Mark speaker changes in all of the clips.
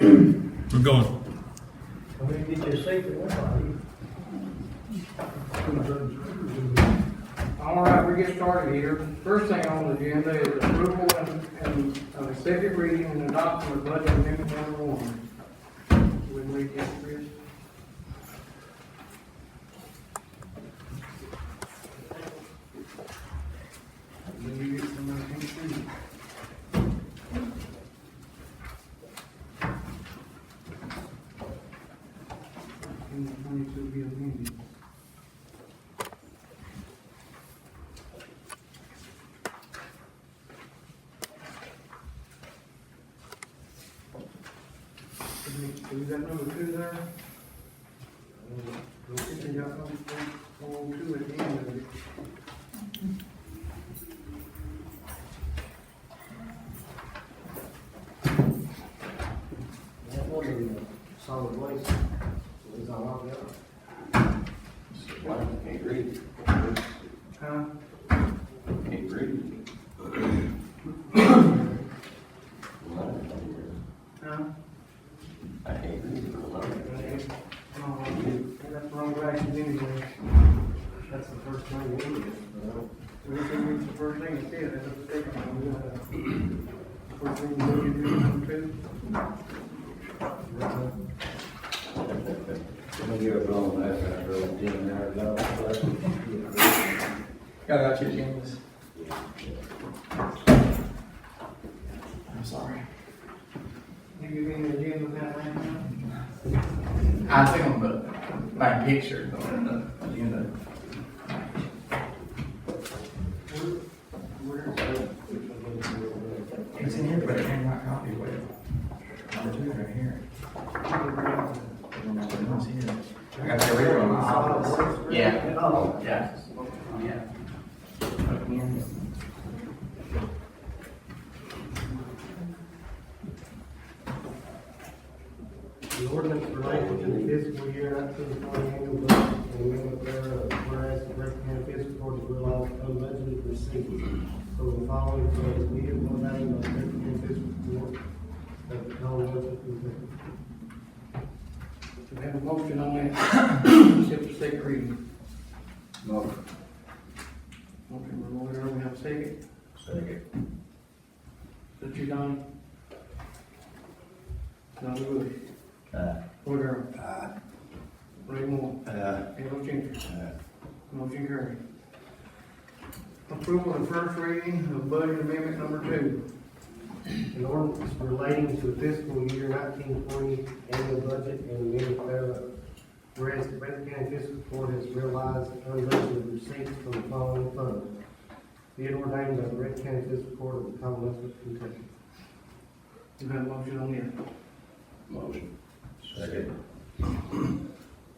Speaker 1: We're going.
Speaker 2: Come in and get your secret weapon.
Speaker 3: All right, we get started here. First thing on the agenda is approval and, and uh, second reading and adoption of budget amendment number one. Would we get Chris? Did you get somebody to see it? And the twenty-two be amended. We got number two there? We think we got number one, two at the end of it.
Speaker 2: That wasn't a solid waste. It was all out there.
Speaker 4: Why? Can't read.
Speaker 3: Huh?
Speaker 4: Can't read.
Speaker 3: Huh?
Speaker 4: I can't read.
Speaker 3: No, that's wrong direction anyway. That's the first thing we did. We didn't read the first thing it said, that's the second one. We got a- First thing we did, we did number two.
Speaker 5: I'm gonna give it wrong, that's what I drove ten hours out.
Speaker 6: Y'all got your agendas? I'm sorry.
Speaker 3: You give me the agenda that right now?
Speaker 6: I seen them, but my picture on the agenda.
Speaker 3: Where?
Speaker 6: It's in here, but it ain't my copy, wait. Number two right here. It's here. I got the real one. in my office. Yeah,
Speaker 2: Oh,
Speaker 6: yeah, yeah.
Speaker 2: The ordinance relating to the fiscal year up to the county annual budget and amendment thereof, whereas the Breath County Fiscal Court has realized unbudgeted receipts from the following funds needed one day by the Breath County Fiscal Court of the county of Kentucky.
Speaker 3: Do we have a motion on that? Except for second reading. Motion by Lloyd Earl, we have a second.
Speaker 5: Second.
Speaker 3: Is that you, Donnie? Donnie Bush.
Speaker 5: Aye.
Speaker 3: Lloyd Earl. Ray Moore.
Speaker 5: Uh,
Speaker 3: Al Changer.
Speaker 5: Aye.
Speaker 3: Motion carried. Approval and first reading of budget amendment number two.
Speaker 2: An ordinance relating to fiscal year nineteen twenty annual budget and amendment thereof. Whereas the Breath County Fiscal Court has realized unreasonable receipts from the following fund. Be it ordained by the Breath County Fiscal Court of the Commonwealth of Kentucky.
Speaker 3: Do we have a motion on this?
Speaker 4: Motion.
Speaker 5: Second.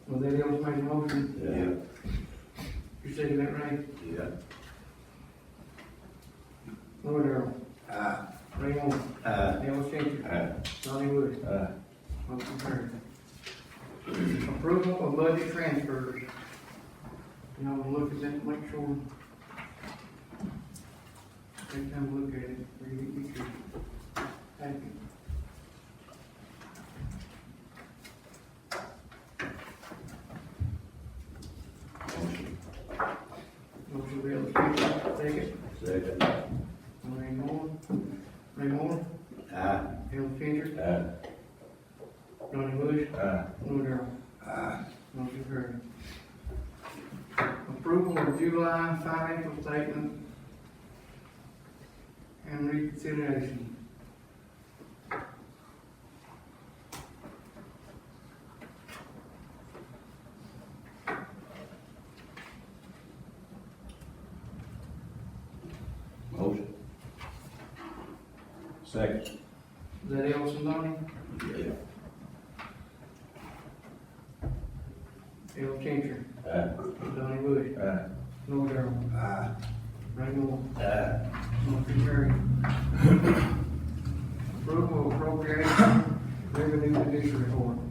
Speaker 3: Was that else made a motion?
Speaker 5: Yeah.
Speaker 3: You second that, Ray?
Speaker 5: Yeah.
Speaker 3: Lloyd Earl.
Speaker 5: Aye.
Speaker 3: Ray Moore.
Speaker 5: Aye.
Speaker 3: Al Changer.
Speaker 5: Aye.
Speaker 3: Donnie Bush.
Speaker 5: Aye.
Speaker 3: Motion carried. Approval of budget transfers. Y'all wanna look at that, make sure. Take time to look at it, read it, be sure. Thank you. Motion Bill Speaker, second.
Speaker 5: Second.
Speaker 3: Ray Moore. Ray Moore,
Speaker 5: Aye.
Speaker 3: Al Changer,
Speaker 5: Aye.
Speaker 3: Donnie Bush,
Speaker 5: Aye.
Speaker 3: Lord Darrell.
Speaker 5: Aye.
Speaker 3: uh, Motion carried. Approval of July financial statement and reconsideration.
Speaker 4: Motion.
Speaker 5: Second.
Speaker 3: Is that Elson Donnie?
Speaker 5: Yeah.
Speaker 3: El Changer,
Speaker 5: Aye.
Speaker 3: Donnie Bush,
Speaker 5: Aye.
Speaker 3: Lord Darrell, Uh,
Speaker 5: Aye.
Speaker 3: Ray Moore.
Speaker 5: Aye.
Speaker 3: Motion carried. Approval of appropriation revenue judicial report.